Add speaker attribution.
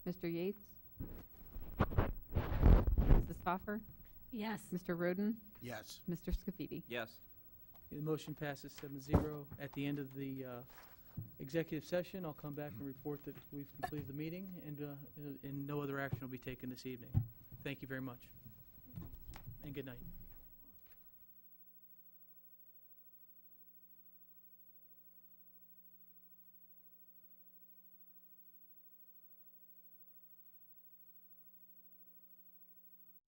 Speaker 1: Mr. Yates? Mrs. Stoffer?
Speaker 2: Yes.
Speaker 1: Mr. Roden?
Speaker 3: Yes.
Speaker 1: Mr. Scafidi?
Speaker 4: Yes.
Speaker 5: The motion passes seven zero. At the end of the uh, executive session, I'll come back and report that we've completed the meeting, and, uh, and- and no other action will be taken this evening. Thank you very much, and good night.